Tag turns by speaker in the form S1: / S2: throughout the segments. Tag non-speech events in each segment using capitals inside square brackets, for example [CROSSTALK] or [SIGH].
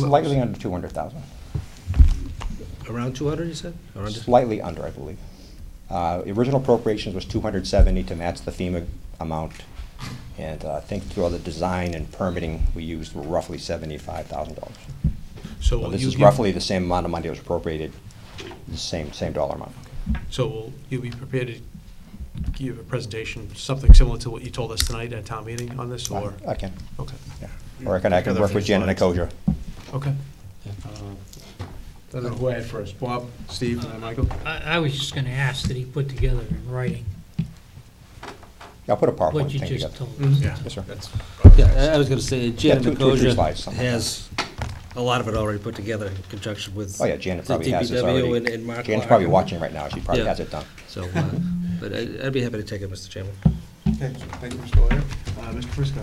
S1: Slightly under 200,000,
S2: Around 200, you said? Around this-
S1: slightly under, I believe. Uh, the Original appropriations was 270 to match the FEMA amount, and uh, I think through all the design and permitting, we used were roughly $75,000.
S2: So
S1: So
S2: will
S1: This
S2: you
S1: is
S2: give-
S1: roughly the same amount of money that was appropriated, the same, same dollar amount.
S2: So will you be prepared to give a presentation, something similar to what you told us tonight at town meeting on this, or?
S1: I can,
S2: Okay,
S1: yeah. Or I can, I can
S3: Together
S1: work
S3: from
S1: with Jen and
S3: slides.
S1: Akoja.
S2: okay. Uh, I don't know who I had first, Bob, Steve, and then Michael?
S4: I, I was just gonna ask that he put together in writing
S1: I'll put a PowerPoint
S4: what you
S1: thing
S4: just
S1: together.
S4: told us.
S2: Mhm.
S3: Yeah.
S1: Yes, sir.
S3: That's-
S5: Yeah, I I was going to say,
S1: Yeah,
S5: Janet
S1: two, two or three
S5: Makosia
S1: slides, something like that.
S5: has a lot of it already put together in conjunction with.
S1: Oh, yeah, Janet
S5: the
S1: probably has this
S5: DPW
S1: already.
S5: and- and Mark
S1: Janet's
S5: Clark.
S1: probably watching right now, she probably
S5: Yeah.
S1: has it done.
S5: So, uh, but I- I'd be happy to take it, Mr. Chairman.
S2: Okay, thank you, Mr. Lawyer. Uh, Mr. Frisco?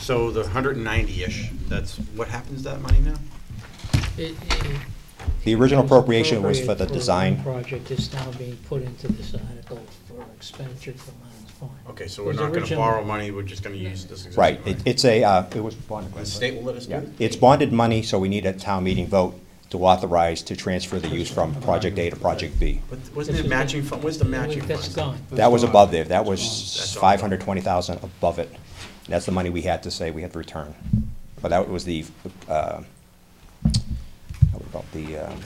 S3: So the hundred and ninety-ish, that's, what happens to that money now?
S4: It- it-
S1: The original appropriation was for the
S4: appropriate for
S1: design.
S4: one Project is now being put into this article for expenditure for Lions Pond.
S3: Okay, so we're
S4: It was
S3: not gonna
S4: original-
S3: borrow money, we're just gonna use this existing
S1: Right,
S3: money.
S1: it- it's a, uh, it was bonded.
S3: The state will let us do
S1: Yeah,
S3: it?
S1: It's bonded money, so we need a town meeting vote to authorize to transfer the use from Project A to Project B.
S3: But wasn't
S4: This
S3: it
S4: is-
S3: matching fund, where's the matching fund?
S4: That's gone.
S1: That was above there, that was
S3: That's all.
S1: five hundred twenty thousand above it. That's the money we had to say we had to return. But that was the, uh, what about the um,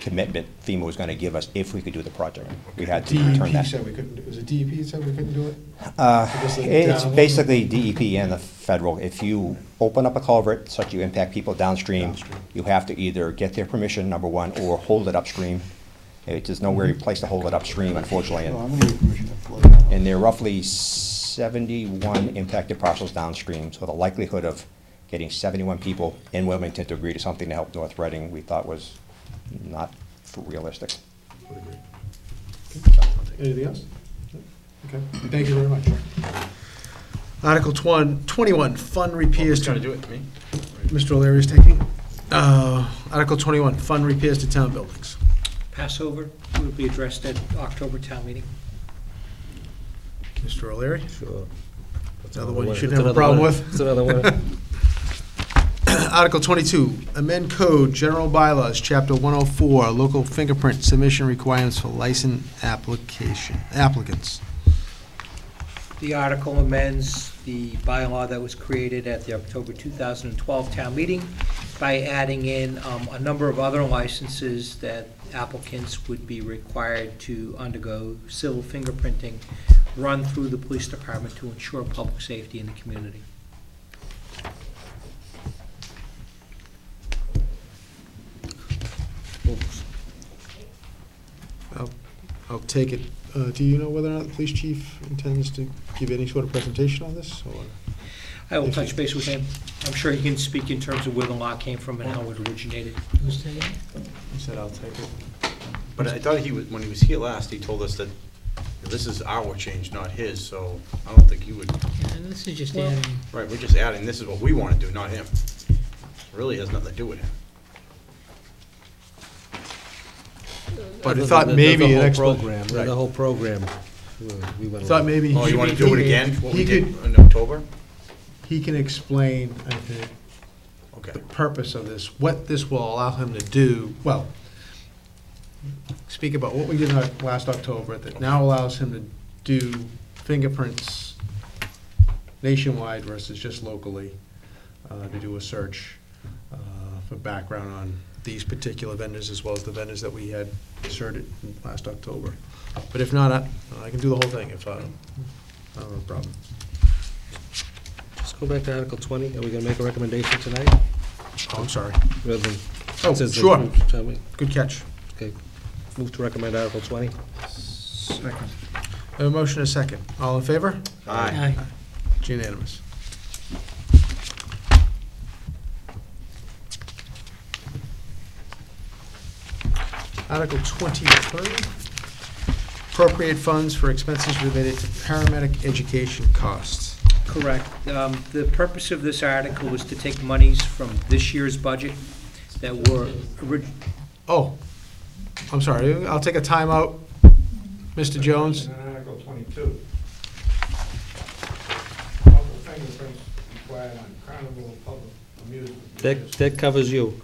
S1: commitment FEMA was gonna give us if we could do the project. We had to
S2: E
S6: DEP
S1: return that.
S6: E
S1: Uh,
S6: said we couldn't, do- was it DEP that said we couldn't do it? Because the
S1: It's
S6: down-
S1: basically DEP and the federal. If you open up a culvert such you impact people downstream,
S6: Downstream.
S1: you have to either get their permission, number one, or hold it upstream. It- There's nowhere place to hold it upstream, unfortunately.
S6: No, Mm-hmm. I'm
S1: and-
S6: gonna give permission to flood that out.
S1: And there are roughly 71 impacted parcels downstream, so the likelihood of getting 71 people in Wilmington to agree to something to help North Reading, we thought was not realistic.
S6: Anything else? No? Okay, thank you very much.
S2: Article twen- 21, fund repairs
S3: Who's
S2: to
S3: gonna do it, me?
S2: Mr. O'Leary is taking. Uh, Article 21, fund repairs to town buildings.
S7: Passover will be addressed at October town meeting.
S2: Mr. O'Leary?
S5: Sure.
S2: Another one you
S5: It's
S2: shouldn't have a
S5: another
S2: problem
S5: one.
S2: with.
S5: It's another one.
S2: [CLEARS THROAT] Article 22, amend code, general bylaws, chapter 104, local fingerprint submission requirements for license application, applicants.
S7: The article amends the bylaw that was created at the October 2012 town meeting by adding in um, a number of other licenses that applicants would be required to undergo civil fingerprinting run through the police department to ensure public safety in the community.
S2: I'll I'll take it. Uh, Do you know whether or not the police chief intends to give any sort of presentation on this? or-
S7: I will touch base with him. I'm sure he can speak in terms of where the law came from and how it originated.
S4: Who's taking it?
S2: He said, "I'll take it."
S3: But I thought he was, when he was here last, he told us that this is our change, not his, so I don't think he would,
S4: Yeah, And this is just
S7: Well-
S4: adding,
S3: right, we're just adding, this is what we wanna do, not him. Really has nothing to do with him.
S2: [LAUGHS] But I
S5: The-
S2: thought
S5: the- the
S2: maybe an
S5: whole
S2: expla-
S5: program,
S2: right.
S5: The whole program. uh, we went
S2: Thought
S5: along.
S2: maybe. he
S3: Oh, you
S2: should
S3: wanna
S2: be-
S3: do it again, what
S2: he
S3: we did
S2: could-
S3: in October?
S2: He can explain, I think,
S3: Okay.
S2: the purpose of this, what this will allow him to do, well, speak about what we did in- last October that now allows him to do fingerprints nationwide versus just locally, uh, to do a search uh, for background on these particular vendors as well as the vendors that we had inserted in last October. But if not, I I can do the whole thing if I, I don't have a problem.
S5: Let's go back to Article 20. Are we going to make a recommendation tonight?
S2: Oh, I'm sorry.
S5: rather than-
S2: Oh,
S5: since the-
S2: sure.
S5: Town meeting.
S2: Good catch.
S5: Okay. Move to recommend Article 20.
S2: A motion and a second. All in favor?
S4: aye,
S3: Aye.
S2: It's unanimous. Article 23, appropriate funds for expenses related to paramedic education costs.
S7: Correct. Um, The purpose of this article was to take monies from this year's budget that were, orig-
S2: Oh, I'm sorry, I'll take a timeout. Mr. Jones?
S8: And then Article twenty-two. Local fingerprints required on carnival public
S5: That, that covers you.